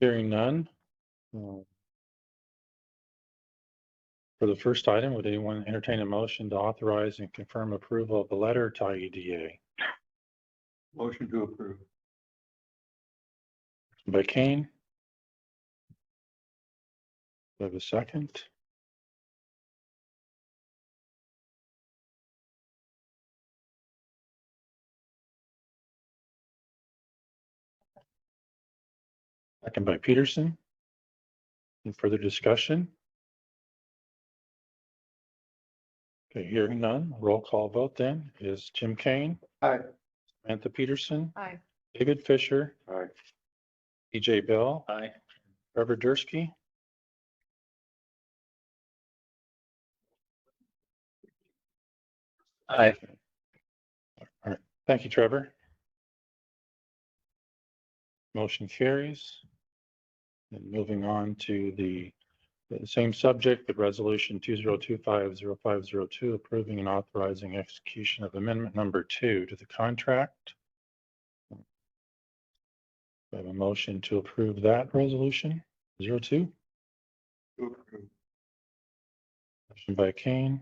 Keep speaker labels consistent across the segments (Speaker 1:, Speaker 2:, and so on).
Speaker 1: Hearing none. um, For the first item, would anyone entertain a motion to authorize and confirm approval of the letter to E IEDA?
Speaker 2: Motion to approve.
Speaker 1: By Kane? Do I have a second? Second by Peterson. Any further discussion? Okay, hearing none, roll call vote then is Jim Kane.
Speaker 2: Aye.
Speaker 1: Samantha Peterson,
Speaker 3: Aye.
Speaker 1: David Fisher,
Speaker 2: Aye.
Speaker 1: EJ Bell.
Speaker 2: Aye.
Speaker 1: Trevor Dursky.
Speaker 2: Aye.
Speaker 1: All right, thank you, Trevor. Motion carries. And moving on to the, the same subject, but resolution two zero two five zero five zero two approving and authorizing execution of amendment number two to the contract. We have a motion to approve that resolution, zero two.
Speaker 2: To approve.
Speaker 1: Motion by Kane.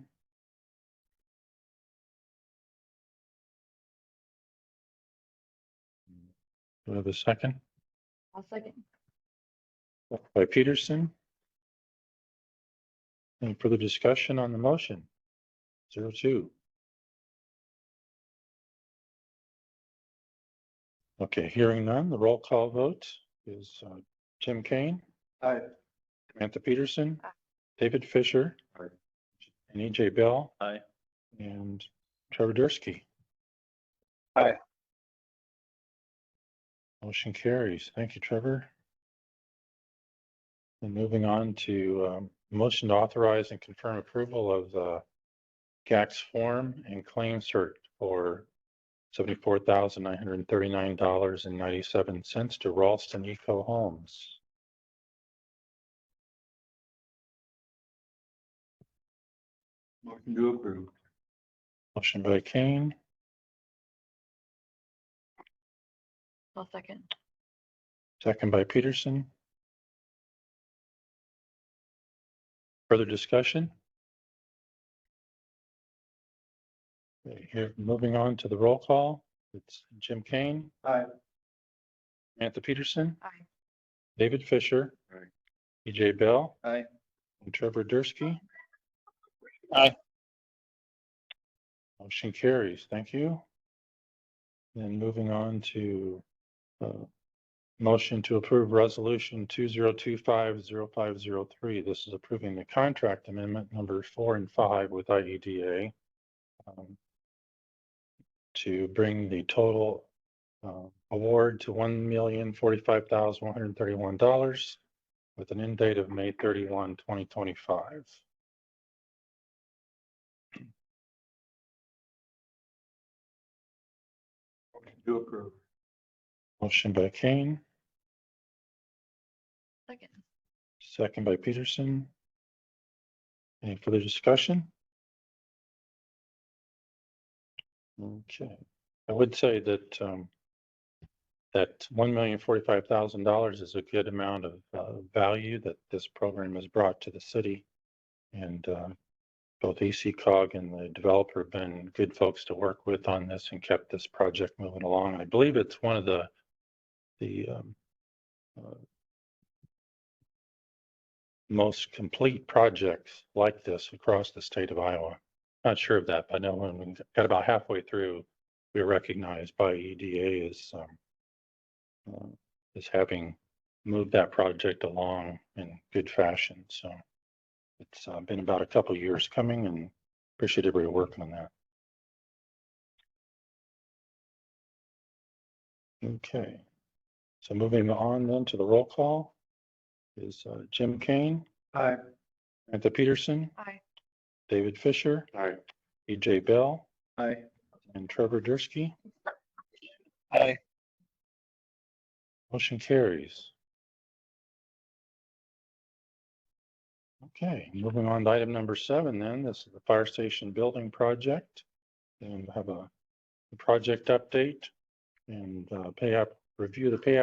Speaker 1: Do I have a second?
Speaker 3: I'll second.
Speaker 1: Second By Peterson. Any further discussion on the motion? Zero two. Okay, hearing none, the roll call vote is uh, Tim Kane,
Speaker 2: Aye.
Speaker 1: Samantha Peterson,
Speaker 3: Aye.
Speaker 1: David Fisher.
Speaker 2: Aye.
Speaker 1: And EJ Bell.
Speaker 2: Aye.
Speaker 1: And Trevor Dursky.
Speaker 2: Aye.
Speaker 1: Motion carries. Thank you, Trevor. And moving on to um, motion to authorize and confirm approval of the GAX form and claim cert for seventy-four thousand nine hundred and thirty-nine dollars and ninety-seven cents to Ralston Eco Homes.
Speaker 2: Motion to approve.
Speaker 1: Motion by Kane,
Speaker 3: I'll second.
Speaker 1: second by Peterson. Further discussion? Okay, Here, moving on to the roll call, it's Jim Kane,
Speaker 2: Aye.
Speaker 1: Samantha Peterson,
Speaker 3: Aye.
Speaker 1: David Fisher.
Speaker 2: Aye.
Speaker 1: EJ Bell.
Speaker 2: Aye.
Speaker 1: And Trevor Dursky.
Speaker 2: Aye.
Speaker 1: Motion carries. Thank you. Then moving on to uh, motion to approve resolution two zero two five zero five zero three. This is approving the contract amendment number four and five with IEDA um, to bring the total uh, award to one million forty-five thousand one hundred thirty-one dollars with an end date of May 31, 2025.
Speaker 2: Motion to approve.
Speaker 1: Motion by Kane,
Speaker 3: Second.
Speaker 1: second by Peterson. Any further discussion? Okay, I would say that um that one million forty-five thousand dollars is a good amount of uh value that this program has brought to the city. And uh both E AC cog and the developer have been good folks to work with on this and kept this project moving along. I believe it's one of the the um uh, most complete projects like this across the state of Iowa. Not sure of that, but I know when we got about halfway through, we were recognized by EDA as um, uh, as having moved that project along in good fashion. So it's uh, been about a couple of years coming, and appreciate everybody working on that. Okay, so moving on then to the roll call is uh, Jim Kane.
Speaker 2: Aye.
Speaker 1: Samantha Peterson,
Speaker 3: Aye.
Speaker 1: David Fisher,
Speaker 2: Aye.
Speaker 1: EJ Bell,
Speaker 2: Aye.
Speaker 1: and Trevor Dursky.
Speaker 2: Aye.
Speaker 1: Motion carries. Okay, moving on to item number seven then, this is the fire station building project. And we have a project update and uh, pay app, review the pay